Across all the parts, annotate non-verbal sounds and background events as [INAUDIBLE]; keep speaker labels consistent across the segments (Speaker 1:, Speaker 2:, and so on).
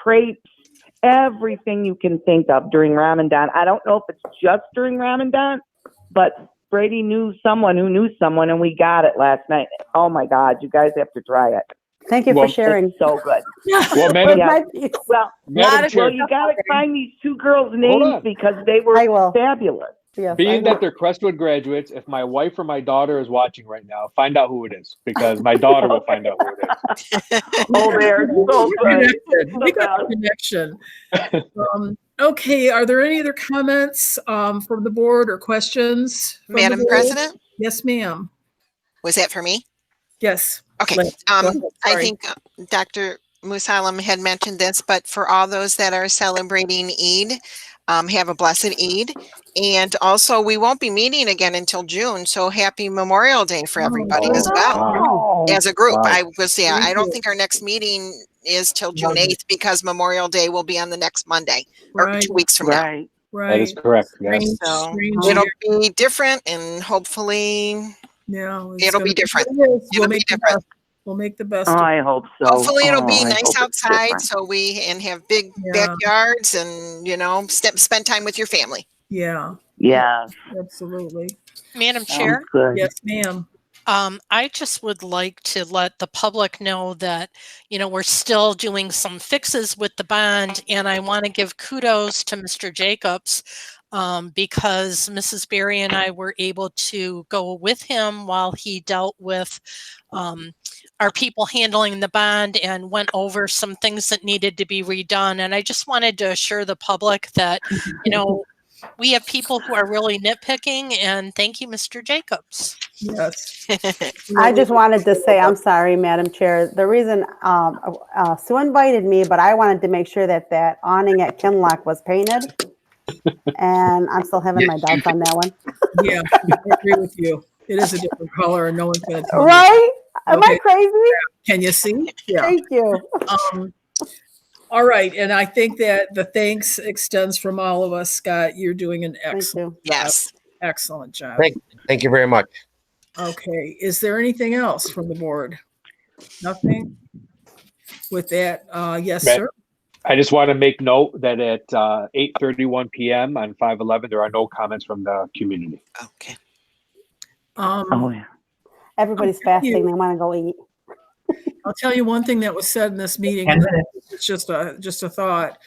Speaker 1: crepes, everything you can think of during Ramadan. I don't know if it's just during Ramadan, but Brady knew someone who knew someone, and we got it last night. Oh my God, you guys have to try it.
Speaker 2: Thank you
Speaker 3: Well,
Speaker 2: for sharing.
Speaker 1: It's so
Speaker 2: [LAUGHS]
Speaker 1: good.
Speaker 3: Well, Madam,
Speaker 1: Yeah. Well,
Speaker 3: Madam
Speaker 1: well,
Speaker 3: Chair,
Speaker 1: you got to find these two girls'
Speaker 3: on.
Speaker 1: names because they
Speaker 2: I
Speaker 1: were
Speaker 2: will.
Speaker 4: [LAUGHS]
Speaker 1: fabulous.
Speaker 2: Yes,
Speaker 3: being
Speaker 2: I
Speaker 3: that
Speaker 2: will.
Speaker 3: they're Crestwood graduates, if my wife or my daughter is watching right now, find out who it is because my daughter will find out who it is.
Speaker 1: Oh, they're so good.
Speaker 5: Connected. We got a connection. Um, Okay, are there any other comments um, from the board or questions? from the
Speaker 4: Madam
Speaker 5: board?
Speaker 4: President,
Speaker 5: Yes, ma'am.
Speaker 4: was that for me?
Speaker 5: Yes.
Speaker 4: Okay,
Speaker 5: Go ahead. Go
Speaker 4: um,
Speaker 5: ahead.
Speaker 4: I
Speaker 5: Sorry.
Speaker 4: think uh, Dr. Musalam had mentioned this, but for all those that are celebrating Eid, um, have a blessed Eid. And also, we won't be meeting again until June, so happy Memorial Day for everybody as well.
Speaker 1: Oh,
Speaker 4: As a group,
Speaker 3: Wow.
Speaker 4: I was, yeah, I don't
Speaker 5: Mhm.
Speaker 4: think our next meeting is till June
Speaker 5: Lovely.
Speaker 4: 8th because Memorial Day will be on the next Monday or
Speaker 5: Right,
Speaker 4: two weeks from now.
Speaker 1: right.
Speaker 3: That
Speaker 5: right.
Speaker 3: is correct. Yes.
Speaker 5: Strange-
Speaker 4: So
Speaker 5: strange
Speaker 4: it'll
Speaker 5: year.
Speaker 4: be different and hopefully,
Speaker 5: Yeah, it's
Speaker 4: it'll
Speaker 5: gonna
Speaker 4: be different.
Speaker 5: It is.
Speaker 4: It'll
Speaker 5: We'll
Speaker 4: be
Speaker 5: make the
Speaker 4: different.
Speaker 5: best- We'll make the best.
Speaker 1: Oh,
Speaker 5: of it.
Speaker 1: I hope so.
Speaker 4: Hopefully it'll be
Speaker 1: Oh, I hope
Speaker 4: nice
Speaker 1: it's
Speaker 4: outside,
Speaker 1: different.
Speaker 4: so we, and have big
Speaker 5: Yeah.
Speaker 4: backyards and, you know, step, spend time with your family.
Speaker 5: Yeah,
Speaker 1: Yeah,
Speaker 5: absolutely.
Speaker 6: Madam
Speaker 1: sounds
Speaker 6: Chair,
Speaker 1: good.
Speaker 4: [LAUGHS]
Speaker 5: Yes, ma'am.
Speaker 6: um, I just would like to let the public know that, you know, we're still doing some fixes with the bond and I want to give kudos to Mr. Jacobs um, because Mrs. Berry and I were able to go with him while he dealt with um, our people handling the bond and went over some things that needed to be redone. And I just wanted to assure the public that, you know, we have people who are really nitpicking and thank you, Mr. Jacobs.
Speaker 4: [LAUGHS]
Speaker 5: Yes.
Speaker 2: I just wanted to say, I'm sorry, Madam Chair. The reason, um, uh, Sue invited me, but I wanted to make sure that that awning at Kinlock was
Speaker 3: [LAUGHS]
Speaker 2: painted. And I'm still having my doubts on that one.
Speaker 5: Yeah, I agree with you. It is a different color and no one's gonna tell you.
Speaker 2: Right? Am I
Speaker 5: Okay.
Speaker 2: crazy?
Speaker 5: Can you see? Yeah.
Speaker 2: Thank you.
Speaker 5: Um, All right, and I think that the thanks extends from all of us. Scott, you're doing an
Speaker 2: Thank
Speaker 5: excellent,
Speaker 2: you.
Speaker 4: Yes.
Speaker 5: excellent job.
Speaker 7: Thank- Thank you very much.
Speaker 5: Okay, is there anything else from the board? Nothing? With that, uh, yes,
Speaker 3: Ma-
Speaker 5: sir.
Speaker 3: I just want to make note that at uh, 8:31 p.m. on 511, there are no comments from the community.
Speaker 4: Okay.
Speaker 1: Oh,
Speaker 5: Um,
Speaker 1: yeah.
Speaker 2: Everybody's
Speaker 5: you.
Speaker 2: fasting. They want to go eat.
Speaker 5: I'll tell you one thing that was said in this meeting. and it's just a just a thought.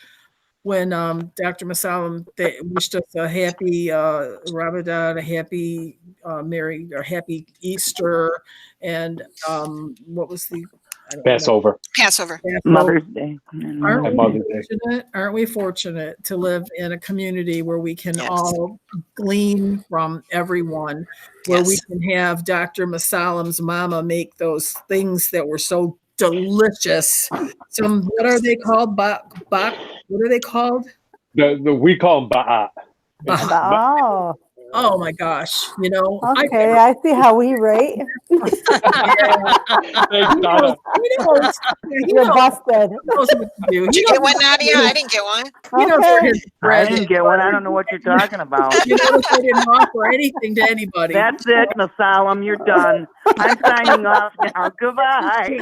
Speaker 5: When um, Dr. Masalam they wished us a happy uh, Ramadan, a happy uh, Merry or happy Easter, and um, what was the I don't know.
Speaker 3: Passover.
Speaker 4: Passover.
Speaker 1: Mother's Day. Mm.
Speaker 5: Aren't
Speaker 3: And
Speaker 5: we
Speaker 3: Mother's Day.
Speaker 5: fortunate? Aren't we fortunate to live in a community where we can
Speaker 4: Yes.
Speaker 5: all glean from everyone? Where we
Speaker 4: Yes.
Speaker 5: can have Dr. Masalam's mama make those things that were so delicious. Some what are they called? Bak bak. What are they called?
Speaker 3: The, the we call them Ba'at.
Speaker 5: Ba'at.
Speaker 2: Oh,
Speaker 5: Oh my gosh! You know, I
Speaker 2: okay. I see how we
Speaker 5: [LAUGHS]
Speaker 2: rate.
Speaker 3: Thanks, Donna.
Speaker 5: he knows, he
Speaker 2: [LAUGHS] You're
Speaker 5: knows,
Speaker 2: busted.
Speaker 5: he knows what to do.
Speaker 4: Did
Speaker 5: He
Speaker 4: you get
Speaker 5: knows,
Speaker 4: one, Nadia? I didn't get one.
Speaker 5: he knows where his
Speaker 1: I
Speaker 5: bread is.
Speaker 1: didn't get one. I don't know what you're talking
Speaker 5: [LAUGHS]
Speaker 1: about.
Speaker 5: You notice I didn't offer anything to anybody.
Speaker 1: That's it, Masalam. You're done. I'm signing off now. Goodbye.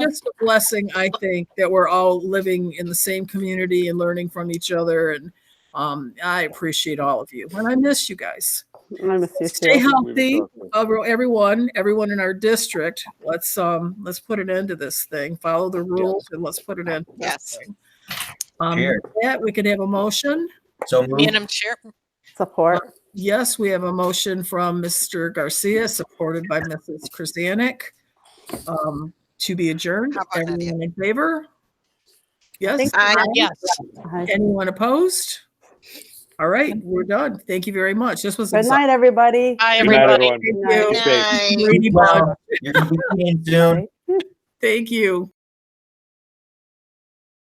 Speaker 5: just a blessing, I think, that we're all living in the same community and learning from each other. And um, I appreciate all of you. And I miss you guys.
Speaker 2: I miss you
Speaker 5: Stay
Speaker 2: too.
Speaker 5: healthy, over- everyone. Everyone in our district. Let's um, let's put an end to this thing. Follow the rules and let's put an end. To this
Speaker 4: Yes.
Speaker 5: Thing. Um,
Speaker 7: Chair.
Speaker 5: with that we could have a motion.
Speaker 7: So moved.
Speaker 6: Madam Chair,
Speaker 2: Support.
Speaker 5: Yes, we have a motion from Mr. Garcia, supported by Mrs. Krasanik, um, to be adjourned.
Speaker 4: How about that, yeah?
Speaker 5: Everyone in favor? Yes.
Speaker 4: I,
Speaker 6: yes.
Speaker 2: Good
Speaker 5: Anyone opposed? All right, we're done. Thank you very much. This was.
Speaker 2: night, everybody.
Speaker 6: Hi,
Speaker 3: Good night,
Speaker 6: everybody.
Speaker 3: everyone.
Speaker 5: Thank
Speaker 2: Good
Speaker 5: you.
Speaker 4: Good night.
Speaker 5: Brady Bunch.
Speaker 7: You're coming in soon.
Speaker 5: Thank you.